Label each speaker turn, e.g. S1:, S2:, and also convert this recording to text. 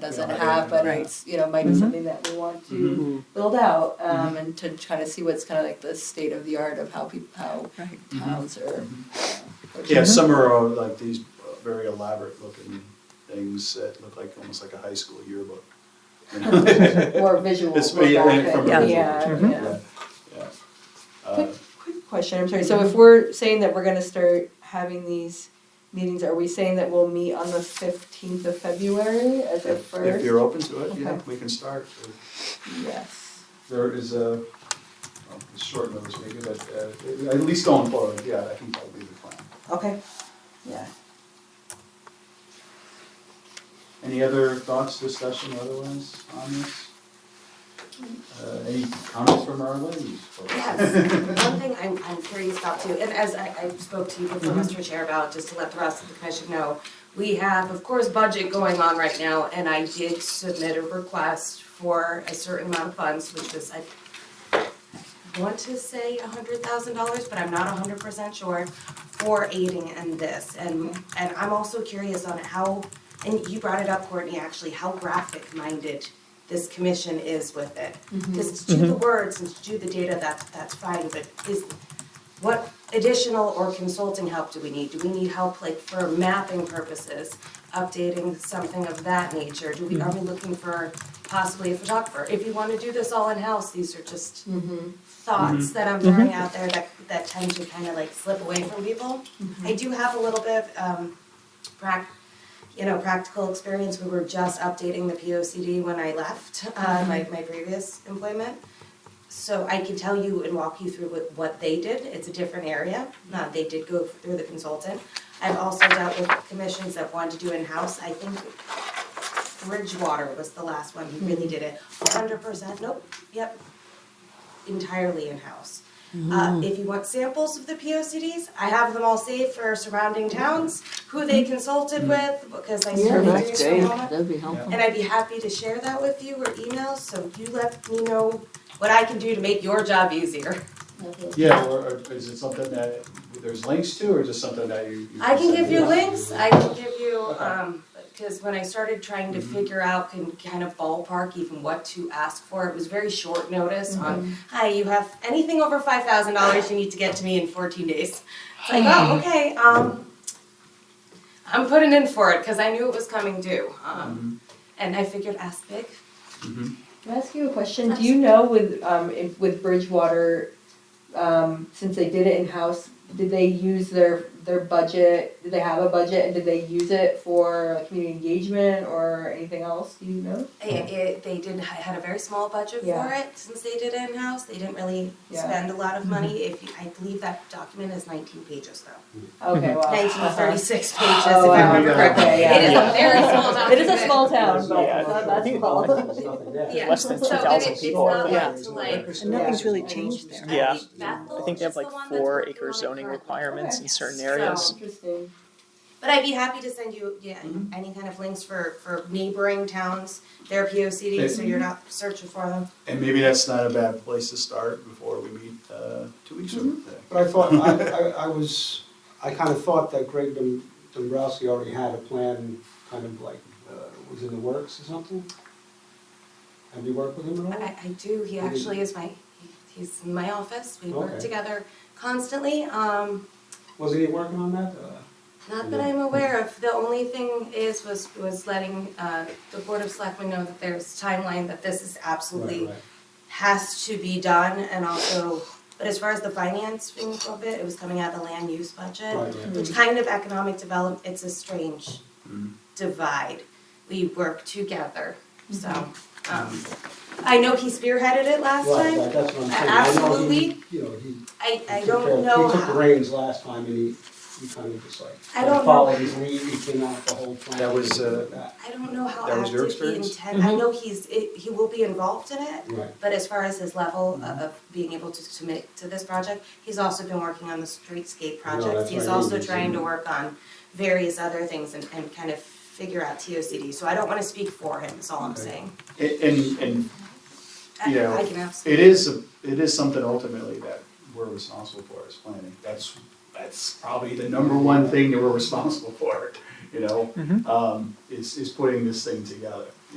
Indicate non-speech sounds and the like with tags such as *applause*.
S1: doesn't have, but
S2: Right.
S1: it's, you know, might be something that we want
S3: Mm-hmm.
S1: to build out, um, and to try to see what's kind of like the state of the art of how people, how
S2: Right.
S3: Mm-hmm.
S1: towns are.
S3: Yeah,
S1: Mm-hmm.
S3: some are uh, like these uh, very elaborate looking things that look like almost like a high school yearbook. *laughs*
S1: *laughs*
S3: You know?
S1: Or visual, or
S3: Mm-hmm. It's- yeah, Mm-hmm.
S1: graphic,
S3: from a
S1: yeah, Mm-hmm.
S2: visual
S3: perspective,
S1: yeah.
S3: yeah.
S1: Quick,
S3: Uh,
S1: quick question, I'm sorry, so if we're saying that we're gonna start having these meetings, are we saying that we'll meet on the fifteenth of February as a
S3: if,
S1: first?
S3: if you're open to it, yeah,
S1: Okay.
S3: we can start.
S1: Yes,
S3: There is a, well, it's short notice maybe, but uh, at least going forward, yeah, I think that'll be the plan.
S1: okay, yeah.
S3: Any other thoughts, discussion otherwise on this? Uh, any comments from our ladies? folks?
S4: Yes, one thing I'm, I'm curious about too, and as I, I spoke to you before, Mr. Chair, about, just to let the rest of the commission know, we have, of course, budget going on right now, and I did submit a request for a certain amount of funds, which was, I want to say a hundred thousand dollars, but I'm not hundred percent sure, for aiding in this, and, and I'm also curious on how, and you brought it up, Courtney, actually, how graphic-minded this commission is with it. Because to do the words and to do the data, that's, that's fine, but is, what additional or consulting help do we need? Do we need help like for mapping purposes, updating something of that nature? Do we, are we looking for possibly a photographer? If you wanna do this all in-house, these are just thoughts that I'm throwing out there that, that tend to kind of like slip away from people. I do have a little bit of, um, prac, you know, practical experience. We were just updating the P O C D when I left, uh, my, my previous employment. So I can tell you and walk you through what, what they did. It's a different area. Uh, they did go through the consultant. I've also dealt with commissions that wanted to do in-house. I think Bridgewater was the last one who really did it. Hundred percent, nope, yep, entirely in-house. Uh,
S2: Mm-hmm.
S4: if you want samples of the POCDs, I have them all saved for surrounding towns, who
S2: Mm-hmm.
S4: they consulted with, because I started doing it from home.
S2: That'd be helpful.
S4: And I'd be happy to share that with you or email, so you let me know what I can do to make your job easier.
S3: Yeah, or or is it something that there's links to, or just something that you? you
S4: I can
S3: send
S4: give you
S3: out?
S4: links, I can give you,
S3: Okay.
S4: um, cause when I started trying to
S1: Mm-hmm.
S4: figure out and kind of ballpark even what to ask for, it was very short notice on,
S1: Mm-hmm.
S4: hi, you have anything over five thousand dollars, you need to get to me in fourteen days. It's like, oh, okay, um, I'm putting in for it, cause I knew it was coming due,
S1: Mm-hmm.
S3: Mm-hmm.
S4: um, and I figured ask big.
S1: Can I ask you a question? Do you know with, um, if, with Bridgewater, um, since they did it in-house, did they use their, their budget, did they have a budget and did they use it for like, community engagement or anything else, do you know?
S4: It, it, they did, ha- had a very small budget for
S1: Yeah.
S4: it, since they did it in-house, they didn't really
S1: Yeah. Mm-hmm.
S4: spend a lot of money, if, you- I believe that document is nineteen pages though.
S5: Mm-hmm.
S1: Okay, well.
S4: Nineteen or thirty-six pages, if
S1: Oh, I
S4: I remember
S3: remember.
S4: correctly,
S1: Okay, yeah.
S4: it is a very small document.
S1: It is a small town, but
S5: Yeah,
S1: not
S5: I
S1: that
S5: think-
S1: small.
S5: I think there's nothing there.
S4: Yeah.
S5: Less than
S4: So
S5: 2,000
S4: it-
S5: people.
S4: It's not
S2: Yeah.
S4: like to like.
S2: And nothing's really changed there.
S5: Yeah.
S4: I think Bethel
S5: I think they have
S4: is the
S5: like
S4: one that's
S5: four
S4: working on
S5: acre
S4: it
S5: zoning
S4: currently.
S5: requirements in
S1: Okay.
S5: certain
S4: So-
S5: areas.
S1: Interesting.
S4: But I'd be happy to send you, yeah,
S3: Mhm.
S4: any kind of links for, for neighboring towns, their P O C D, so you're not searching for them.
S3: And maybe that's not a bad place to start before we meet uh, two weeks from
S4: Mm-hmm.
S3: today.
S6: But I thought, I, I, I was, I kind of thought that Greg Dom- Dombrowski already had a plan, kind of like, uh, was in the works or something? Have you worked with him at all?
S4: I, I do, he
S6: Mhm.
S4: actually is my, he's in my office, we work
S6: Okay.
S4: together constantly, um,
S6: Wasn't he working on that? Uh,
S4: not that I'm aware of, the only thing is, was, was letting, uh, the Board of Selectmen know that there's timeline, that this is absolutely,
S6: Right, right.
S4: has to be done, and also, but as far as the financing of it, it was coming out of the land use budget.
S6: Right, right.
S4: which kind of economic development, it's a strange
S6: Mm-hmm.
S3: Mhm.
S4: divide. We work together, so, um, I know he spearheaded it last
S6: Mm-hmm.
S4: time.
S6: Right, right, that's what I'm saying. I know he-
S4: Absolutely.
S6: You know, he.
S4: I, I
S6: he took care
S4: don't
S6: of-
S4: know
S6: He took the
S4: how,
S6: reins last time and he, he kind of just like.
S4: I don't know.
S6: Followed his lead, he came out with the whole plan.
S3: That was,
S6: and
S3: uh,
S6: that.
S4: I don't know how
S3: That was your
S4: active he
S3: experience?
S4: intend, I know he's, it- he will be involved in it,
S6: Right.
S4: but as far as his level of,
S6: Mm-hmm.
S4: of being able to submit to this project, he's also been working on the streetscape
S6: I know,
S4: projects.
S6: that's
S4: He's
S6: what I
S4: also
S6: mean,
S4: trying to
S6: isn't it?
S4: work on various other things and, and kind of figure out TOCD, so I don't wanna speak for him, is all I'm
S6: Okay.
S4: saying.
S3: And, and- and
S4: I-
S3: You know,
S4: I can absolutely.
S3: it is, a- it is something ultimately that we're responsible for is planning. That's, that's probably the number *laughs* one thing that we're responsible for, you know? Um, Is, is putting this thing together.